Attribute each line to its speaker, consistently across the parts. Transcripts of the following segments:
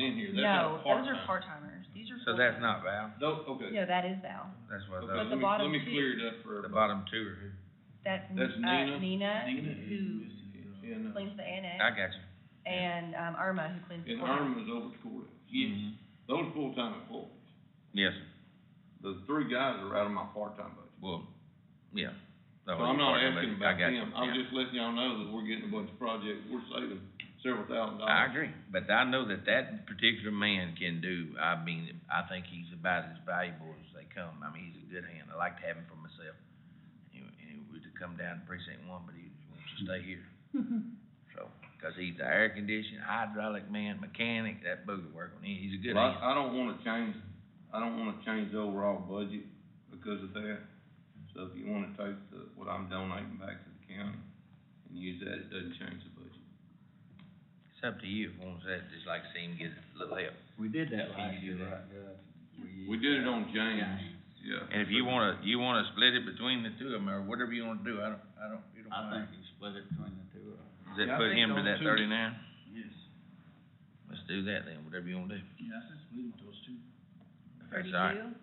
Speaker 1: in here, that's
Speaker 2: No,
Speaker 1: not
Speaker 2: those are
Speaker 1: part-time.
Speaker 2: part-timers, these are
Speaker 3: So
Speaker 2: full-time.
Speaker 3: that's not Val,
Speaker 1: Tho- okay, okay,
Speaker 2: No, that is Val,
Speaker 3: that's what
Speaker 1: let
Speaker 3: those,
Speaker 2: the
Speaker 1: me,
Speaker 2: bottom
Speaker 1: let me
Speaker 2: two-
Speaker 1: clear it up for
Speaker 3: the
Speaker 1: everybody.
Speaker 3: bottom two are, who-
Speaker 2: that's,
Speaker 1: That's
Speaker 2: uh,
Speaker 1: Nina.
Speaker 2: Nina,
Speaker 1: Nina
Speaker 2: who
Speaker 1: And, uh,
Speaker 2: cleans the
Speaker 3: I
Speaker 2: annex,
Speaker 3: got you.
Speaker 2: and, um, Irma, who cleans the
Speaker 1: and
Speaker 2: courthouse.
Speaker 1: Irma's over at the courthouse, yes,
Speaker 3: Mhm.
Speaker 1: those full-time employees,
Speaker 3: Yes, sir.
Speaker 1: the three guys are out of my part-time budget.
Speaker 3: well, yeah.
Speaker 1: So I'm not asking about them, I'm just letting y'all know that we're getting a bunch of projects, we're saving several thousand
Speaker 3: I
Speaker 1: dollars.
Speaker 3: agree, but I know that that particular man can do, I mean, I think he's about as valuable as they come, I mean, he's a good hand, I like to have him for myself. He, he would come down to precinct one, but he wants to stay here, so, cause he's the air conditioner, hydraulic man, mechanic, that booger work on him, he's a good
Speaker 1: Well,
Speaker 3: hand.
Speaker 1: I, I don't wanna change, I don't wanna change the overall budget because of that. So if you wanna take the, what I'm donating back to the county and use that, it doesn't change the budget.
Speaker 3: It's up to you, if you want to, just like see him get a little help.
Speaker 4: We did that
Speaker 3: Can
Speaker 4: last
Speaker 3: you
Speaker 4: year,
Speaker 3: do
Speaker 4: right, Gov?
Speaker 1: We did it on James, yeah.
Speaker 3: And if you wanna, you wanna split it between the two of them, or whatever you wanna do, I don't, I don't, you don't
Speaker 4: I
Speaker 3: mind.
Speaker 4: think you split it between the two of them.
Speaker 3: Does that
Speaker 5: Yeah, I
Speaker 3: put
Speaker 5: think
Speaker 3: him to
Speaker 5: those
Speaker 3: that
Speaker 5: two-
Speaker 3: thirty-nine?
Speaker 5: Yes,
Speaker 3: Let's do that then, whatever you wanna do.
Speaker 5: yeah, I just believe those two,
Speaker 3: If that's all right.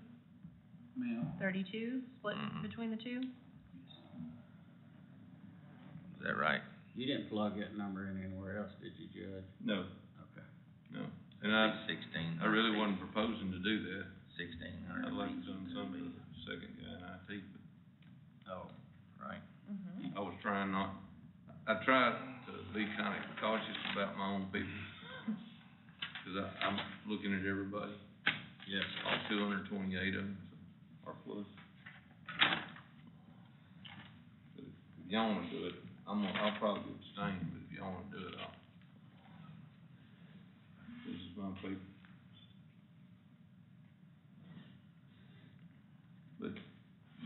Speaker 2: Thirty-two,
Speaker 5: ma'am.
Speaker 2: thirty-two, split
Speaker 3: Mhm.
Speaker 2: between the two?
Speaker 3: Is that right?
Speaker 4: You didn't plug that number in anywhere else, did you, Judge?
Speaker 1: No,
Speaker 4: Okay.
Speaker 1: no. And I,
Speaker 3: Sixteen.
Speaker 1: I really wasn't proposing to do that.
Speaker 3: Sixteen hundred.
Speaker 1: I'd like to do something with the second guy in IT, but
Speaker 3: Oh, right.
Speaker 2: Mm-hmm.
Speaker 1: I was trying not, I tried to be kinda cautious about my own people, cause I, I'm looking at everybody. Yes. All two hundred and twenty-eight of them are plus. But If y'all wanna do it, I'm gonna, I'll probably abstain, but if y'all wanna do it, I'll. This is my people. But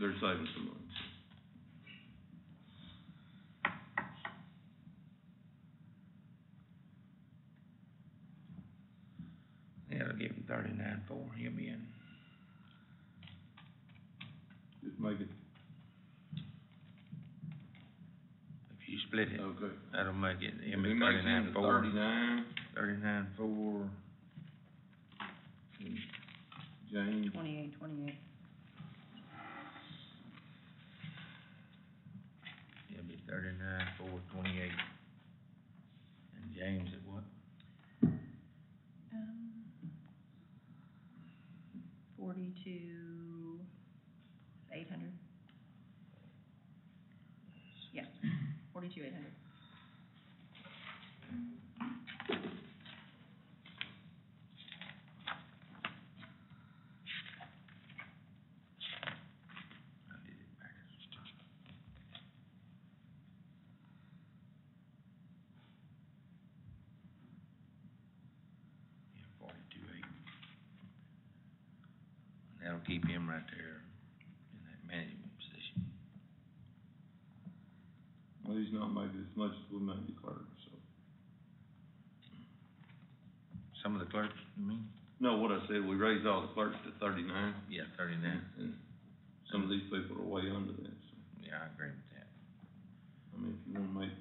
Speaker 1: they're saving some money.
Speaker 3: Yeah, it'll give him thirty-nine four, he'll be in.
Speaker 1: Just make it,
Speaker 3: If you split it,
Speaker 1: okay.
Speaker 3: that'll make it, he'll
Speaker 1: It
Speaker 3: be
Speaker 1: makes it
Speaker 3: thirty-nine
Speaker 1: into
Speaker 3: four,
Speaker 1: Thirty-nine,
Speaker 3: thirty-nine four.
Speaker 1: James,
Speaker 2: Twenty-eight, twenty-eight.
Speaker 3: It'll be thirty-nine four twenty-eight. And James at what?
Speaker 2: Um, forty-two, eight hundred. Yeah, forty-two, eight hundred.
Speaker 3: I did it backwards. Yeah, forty-two eight. That'll keep him right there in that management position.
Speaker 1: well, he's not making as much as we make the clerk, so.
Speaker 3: Some of the clerks, you mean?
Speaker 1: No, what I said, we raised all the clerks to thirty-nine,
Speaker 3: Yeah, thirty-nine.
Speaker 1: and, and some of these people are way under that, so,
Speaker 3: Yeah, I agree with that.
Speaker 1: I mean, if you wanna make.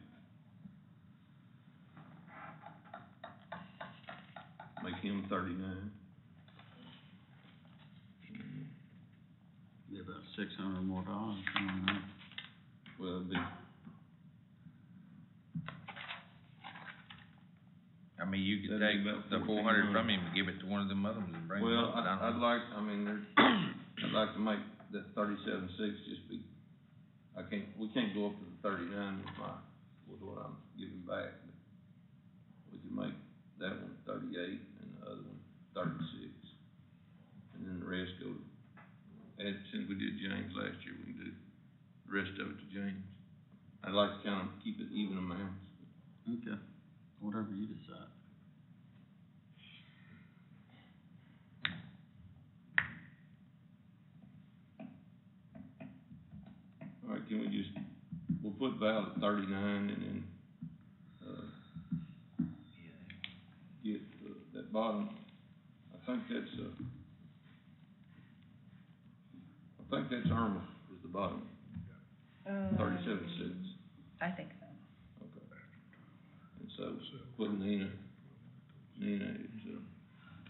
Speaker 1: Make him thirty-nine,
Speaker 4: Be about six hundred more dollars coming up.
Speaker 1: well, it'd be,
Speaker 3: I mean, you could
Speaker 1: That'd
Speaker 3: take
Speaker 1: be about
Speaker 3: the four hundred from him and give it to one of them others and bring it
Speaker 1: well,
Speaker 3: up, but
Speaker 1: I,
Speaker 3: I
Speaker 1: I'd
Speaker 3: don't.
Speaker 1: like, I mean, there, I'd like to make that thirty-seven six just be, I can't, we can't go up to the thirty-nine with my, with what I'm giving back. but We can make that one thirty-eight and the other one thirty-six. And then the rest go, and since we did James last year, we can do the rest of it to James. I'd like to kind of keep it even amounts.
Speaker 4: Okay, whatever you decide.
Speaker 1: All right, can we just, we'll put Val at thirty-nine and then, uh, get uh, that bottom, I think that's, uh, I think that's Irma is the bottom, thirty-seven six,
Speaker 2: Um, I think so.
Speaker 1: okay. And so, put Nina, Nina is, uh,